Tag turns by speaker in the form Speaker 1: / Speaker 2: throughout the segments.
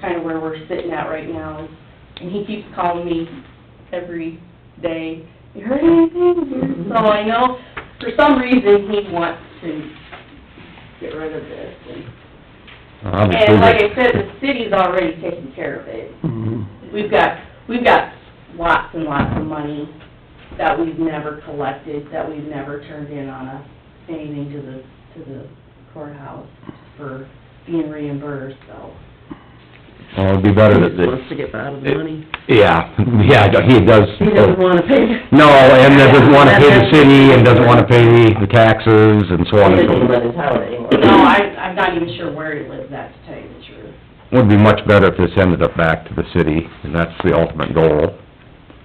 Speaker 1: kinda where we're sitting at right now. is- And he keeps calling me every day, you heard anything? So I know, for some reason, he wants to get rid of this. and-
Speaker 2: Obviously,
Speaker 1: And like I
Speaker 2: that's-
Speaker 1: said, the city's already taking care of it.
Speaker 2: Mhm.
Speaker 1: We've got, we've got lots and lots of money that we've never collected, that we've never turned in on a, anything to the, to the courthouse for being reimbursed, so.
Speaker 2: Well, Oh, it'd be better that
Speaker 3: He wants
Speaker 2: they,
Speaker 3: to get out of the money.
Speaker 2: yeah, yeah, he does.
Speaker 3: He doesn't wanna pay.
Speaker 2: Oh. No, and doesn't wanna pay the city, and doesn't wanna pay the taxes, and so on
Speaker 3: He
Speaker 2: and
Speaker 3: doesn't
Speaker 2: so
Speaker 3: even live
Speaker 2: forth.
Speaker 3: in town anymore.
Speaker 1: No, I, I'm not even sure where he lives at, to tell you the truth.
Speaker 2: Would be much better if this ended up back to the city, and that's the ultimate goal.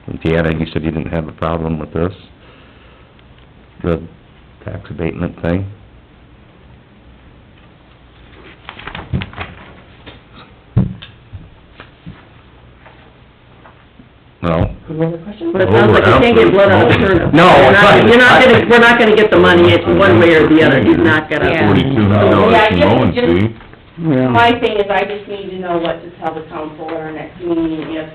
Speaker 2: And Deanna, you said you didn't have a problem with this? The tax abatement thing? No?
Speaker 3: Any other questions? But it sounds like you can't get blood out of turnip.
Speaker 2: No,
Speaker 3: You're not-
Speaker 2: right.
Speaker 3: You're not gonna, we're not gonna get the money, it's one way or the other, he's not
Speaker 1: Yeah.
Speaker 3: gonna.
Speaker 4: Forty-two dollars
Speaker 1: Yeah, I
Speaker 4: to
Speaker 1: guess
Speaker 4: mowing
Speaker 1: it's just-
Speaker 4: fee.
Speaker 5: Oh.
Speaker 1: My thing is, I just need to know what to tell the council at our next meeting, if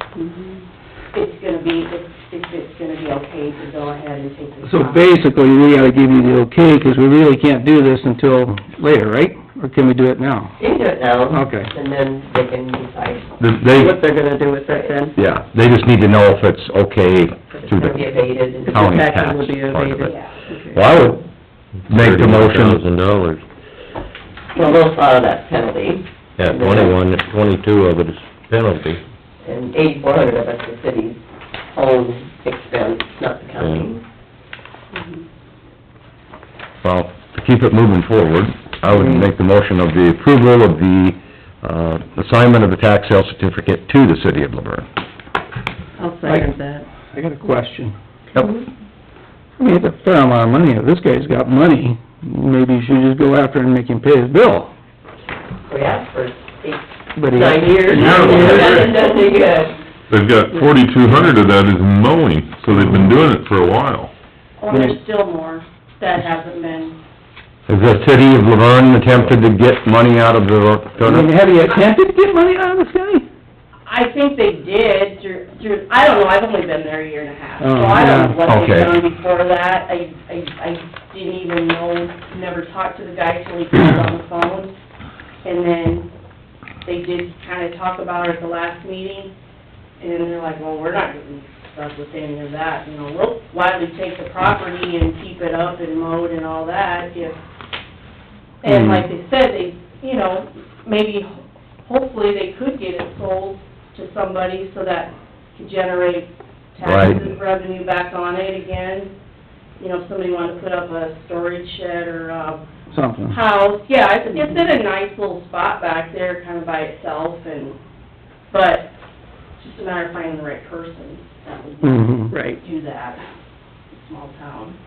Speaker 1: it's gonna be, if, if it's gonna be okay to go ahead and take this
Speaker 5: So
Speaker 1: off.
Speaker 5: basically, we gotta give you the okay, 'cause we really can't do this until later, right? Or can we do it now?
Speaker 3: They do it now.
Speaker 5: Okay.
Speaker 3: And then they can decide
Speaker 2: The- They,
Speaker 3: what they're gonna do with it then.
Speaker 2: yeah, they just need to know if it's okay
Speaker 3: It's
Speaker 2: through
Speaker 3: gonna be
Speaker 2: the...
Speaker 3: abated. and
Speaker 2: County
Speaker 3: the taxes
Speaker 2: tax
Speaker 3: will be
Speaker 2: part of it.
Speaker 3: abated.
Speaker 1: Yeah.
Speaker 2: Well, I would make the motion... Thousand dollars.
Speaker 3: Well, they'll follow that penalty.
Speaker 2: Yeah,
Speaker 3: And then-
Speaker 2: twenty-one, twenty-two of it is penalty.
Speaker 3: And eighty-four hundred of it's the city's own expense, not the county.
Speaker 2: Well, to keep it moving forward, I would
Speaker 1: Mm-hmm.
Speaker 2: make the motion of the approval of the, uh, assignment of the tax sale certificate to the city of Laverne.
Speaker 3: I'll
Speaker 5: second
Speaker 3: that.
Speaker 5: I got a question.
Speaker 2: Yep.
Speaker 5: I mean, it's a fair amount of money, if this guy's got money, maybe you should just go after and make him pay his bill.
Speaker 3: We asked for eight,
Speaker 5: But he-
Speaker 3: nine years.
Speaker 4: Yeah, well,
Speaker 3: Nothing does any good.
Speaker 4: They've got forty-two hundred of that is mowing, so they've been doing it for a while.
Speaker 1: Or there's still more that hasn't been,
Speaker 2: Has the city of Laverne attempted to get money out of the
Speaker 5: I mean,
Speaker 2: turnip?
Speaker 5: have you attempted to get money out of this guy?
Speaker 1: I think they did through, through, I don't know, I've only been there a year and a half. So
Speaker 5: Oh,
Speaker 1: I don't know
Speaker 5: yeah.
Speaker 1: what they've
Speaker 2: Okay.
Speaker 1: done before that, I, I, I didn't even know, never talked to the guy till he called on the phone. And then they did kinda talk about it at the last meeting, and then they're like, well, we're not getting stuck with any of that, you know, we'll gladly take the property and keep it up and mowed and all that if, and
Speaker 5: Hmm.
Speaker 1: like they said, they, you know, maybe, hopefully they could get it sold to somebody so that could generate taxes
Speaker 2: Right.
Speaker 1: revenue back on it again. You know, if somebody wanted to put up a storage shed or a
Speaker 5: Something.
Speaker 1: house, yeah, it's, it's in a nice little spot back there, kind of by itself and, but it's just a matter of finding the right person that would
Speaker 2: Mm-hmm.
Speaker 5: Mhm.
Speaker 3: Right.
Speaker 1: do that, small town.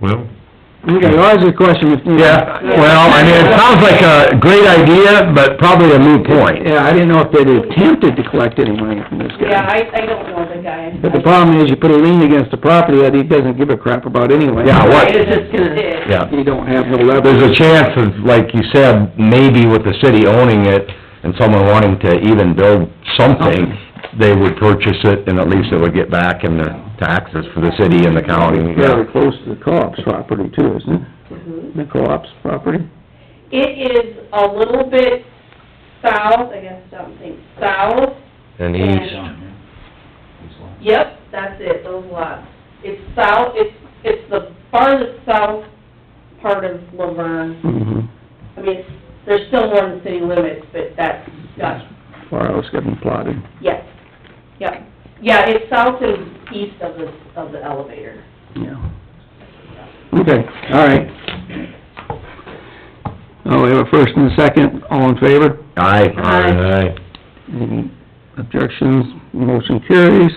Speaker 4: Well,
Speaker 5: Okay, well, that's a question, if...
Speaker 2: Yeah, well, I mean, it sounds like a great idea, but probably a moot point.
Speaker 5: Yeah, I didn't know if they'd attempted to collect any money from this guy.
Speaker 1: Yeah, I, I don't know the guy.
Speaker 5: But the problem is, you put a lien against the property that he doesn't give a crap about anyway.
Speaker 2: Yeah, what-
Speaker 1: It's just gonna
Speaker 2: Yeah.
Speaker 5: You don't have no leverage.
Speaker 2: There's a chance of, like you said, maybe with the city owning it and someone wanting to even build something, they would purchase it and at least it would get back in the taxes for the city and the county.
Speaker 5: Rather close to the co-op's property too, isn't it? The co-op's property?
Speaker 1: Mm-hmm. It is a little bit south, I guess, I don't think, south.
Speaker 2: And
Speaker 1: Yep, that's it, those lots. It's south, it's, it's the farthest south part of Laverne.
Speaker 5: Mm-hmm.
Speaker 1: I mean, it's- there's still more than city limits, but that's, that's,
Speaker 5: Far else getting plotted.
Speaker 1: yes, yep. Yeah, it's south and east of the, of the elevator.
Speaker 5: Yeah. Okay, all right. Oh, we have a first and a second, all in favor?
Speaker 2: Aye.
Speaker 3: Aye.
Speaker 5: Any objections? Motion carries.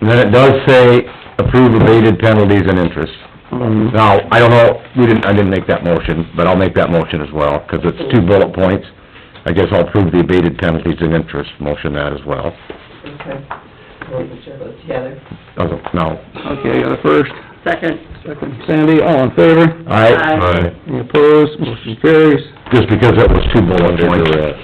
Speaker 2: And then it does say approve abated penalties and interest.
Speaker 5: Um,
Speaker 2: Now, I don't know, we didn't, I didn't make that motion, but I'll make that motion as well, 'cause it's two bullet points. I guess I'll approve the abated penalties and interest, motion that as well.
Speaker 3: Okay. I wasn't sure those together.
Speaker 2: Doesn't, no.
Speaker 5: Okay, got a first,
Speaker 3: Second.
Speaker 5: second, Sandy, all in favor?
Speaker 2: Aye.
Speaker 3: Aye.
Speaker 4: I.
Speaker 5: Any opposed? Motion carries.
Speaker 2: Just because it was two bullet points.